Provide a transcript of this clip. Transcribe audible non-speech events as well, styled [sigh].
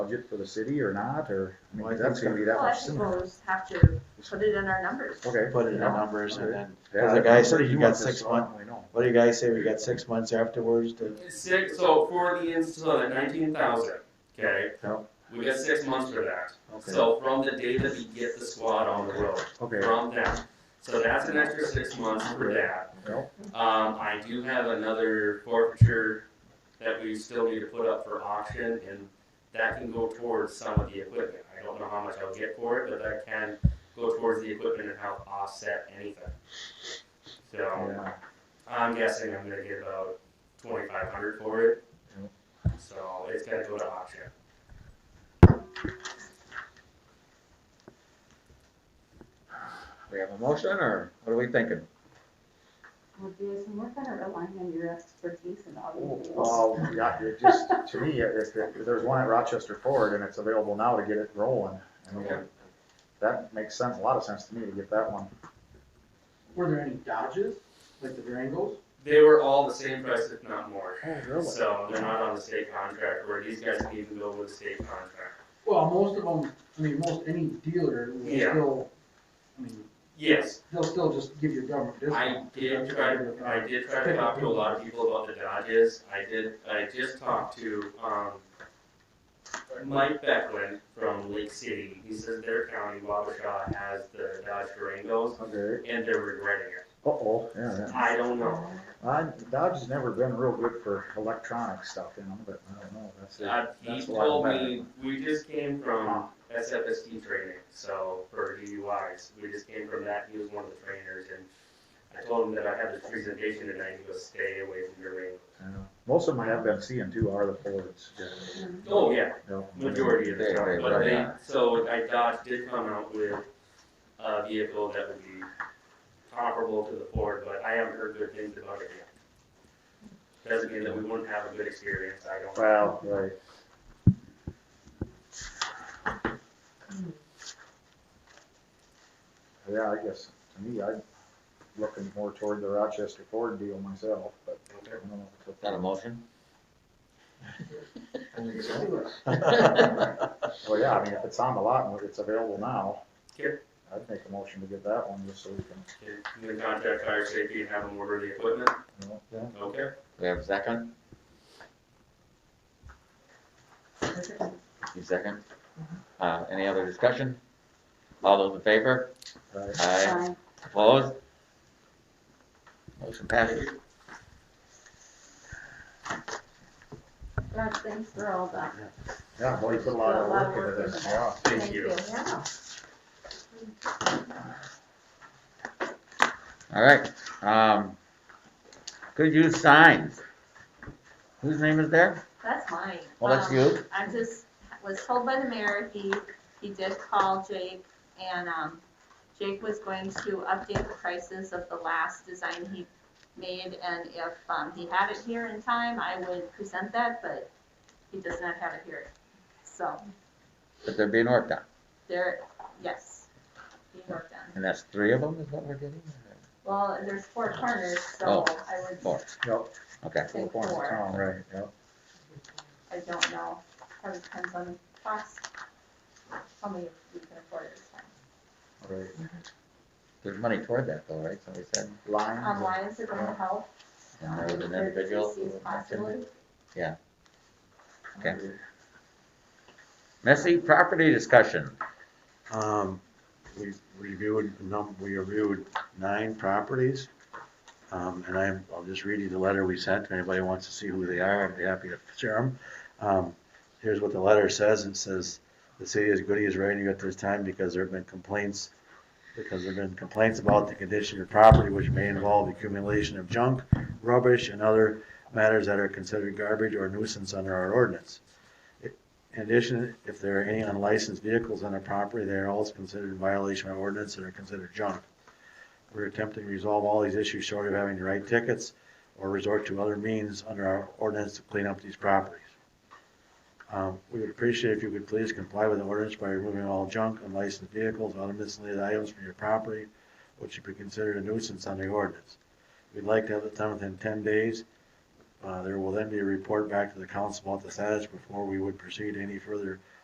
budget for the city or not, or, I mean, Well, I 'cause that's think gonna be that Well, I much think sooner. we'll just have to put it in our numbers. Okay. put it in Yeah. numbers and then, Yeah, Well, the I'm guy said pretty you new got at this, six so I don't month- really know. what do you guys say, we got six months afterwards to, Six, so for the install, nineteen thousand, okay? Yep. We got six months for that. okay, So from the day that we get the squad on the road, Okay, from that. So that's an extra six months for that. Yep. Um, I do have another forfeiture that we still need to put up for auction and that can go towards some of the equipment. I don't know how much I'll get for it, but that can go towards the equipment and help offset anything. So yeah, I'm guessing I'm gonna get about twenty-five hundred for it. Yep. So it's gonna go to auction. we have a motion, or what are we thinking? Well, do some work on it relying on your expertise and Oh, all Well, yeah, it just, to me, if, if there's one at Rochester Ford and it's available now to get it rolling, I mean, Okay. that makes sense, a lot of sense to me to get that one. Were there any Dodges, like the Durangos? They were all the same price, if not more. Oh, So they're not on the state contract, where these guys can even go with the state contract. Well, most of them, I mean, most any dealer will Yeah. still, I mean, Yes, they'll still just give you a government I discount. did try, I did try to talk to a lot of people about the Dodges, I did, I just talked to, um, Mike Becklin from Lake City, he says their county, Wabasha, has the Dodge Durangos, Okay, and they're regretting it. uh-oh, yeah, yeah. I don't know, I, Dodge's never been real good for electronic stuff, you know, but I don't know, that's. Uh, he That's a lot told better. me, we just came from SFSD training, so for DUIs, we just came from that, he was one of the trainers, and I told him that I had this presentation tonight, he goes, stay away from your ring. Yeah. Most of them I have been seeing too are the Fords. Oh, yeah, Yeah. majority of the They- time, they- but right, they, yeah. so I Dodge did come out with a vehicle that would be comparable to the Ford, but I haven't heard good things about it yet. Doesn't mean that we wouldn't have a good experience, I don't. Wow, right. Yeah, I guess, to me, I'm looking more toward the Rochester Ford deal myself, but I don't know. if it's Not a a- [laughs] motion? Well, yeah, I mean, if it's on the lot and it's available now. Here. I'd make a motion to get that one just so we can, I'm gonna contact fire safety and have them order the equipment, you know, okay? We have a second? You second? Uh, any other discussion? All those in favor? right. Uh, Aye. that. Opposed? Motion passes. Rob, thanks for all that. Yeah, well, you put a lot of work into this, yeah. Thank you. Yeah. All right, um, could use signs. Whose name is there? That's mine. Well, that's Um, you. I just was told by the mayor, he, he did call Jake and, um, Jake was going to update the prices of the last design he made and if, um, he had it here in time, I would present that, but he does not have it here. So That they're being worked on, there, yes, being worked on. and that's three of them is what we're getting? Well, there's four corners, so I would Oh, Four, Yep, okay. four think corners of four. town, right, yep. I don't know. Probably depends on cost. How many we can afford at this time. Right. There's money toward that though, right? Somebody said, Lines. Um, lines are going to help. and there was an individual. who Thirty-six was mentioned. Possibly. Okay. Um, Messy property discussion. um, we reviewed, a num, we reviewed nine properties. Um, and I, I'll just read you the letter we sent, if anybody wants to see who they are, I'd be happy to share them. Um, here's what the letter says, it says, the city is good as ready at this time because there have been complaints, because there have been complaints about the condition of property which may involve accumulation of junk, rubbish, and other matters that are considered garbage or nuisance under our ordinance. In addition, if there are any unlicensed vehicles on a property, they are also considered in violation of ordinance and are considered junk. We're attempting to resolve all these issues short of having to write tickets or resort to other means under our ordinance to clean up these properties. Um, we would appreciate if you could please comply with the ordinance by removing all junk, unlicensed vehicles, other miscellaneous items from your property, which should be considered a nuisance under the ordinance. We'd like to have it done within ten days. Uh, there will then be a report back to the council about the status before we would proceed any further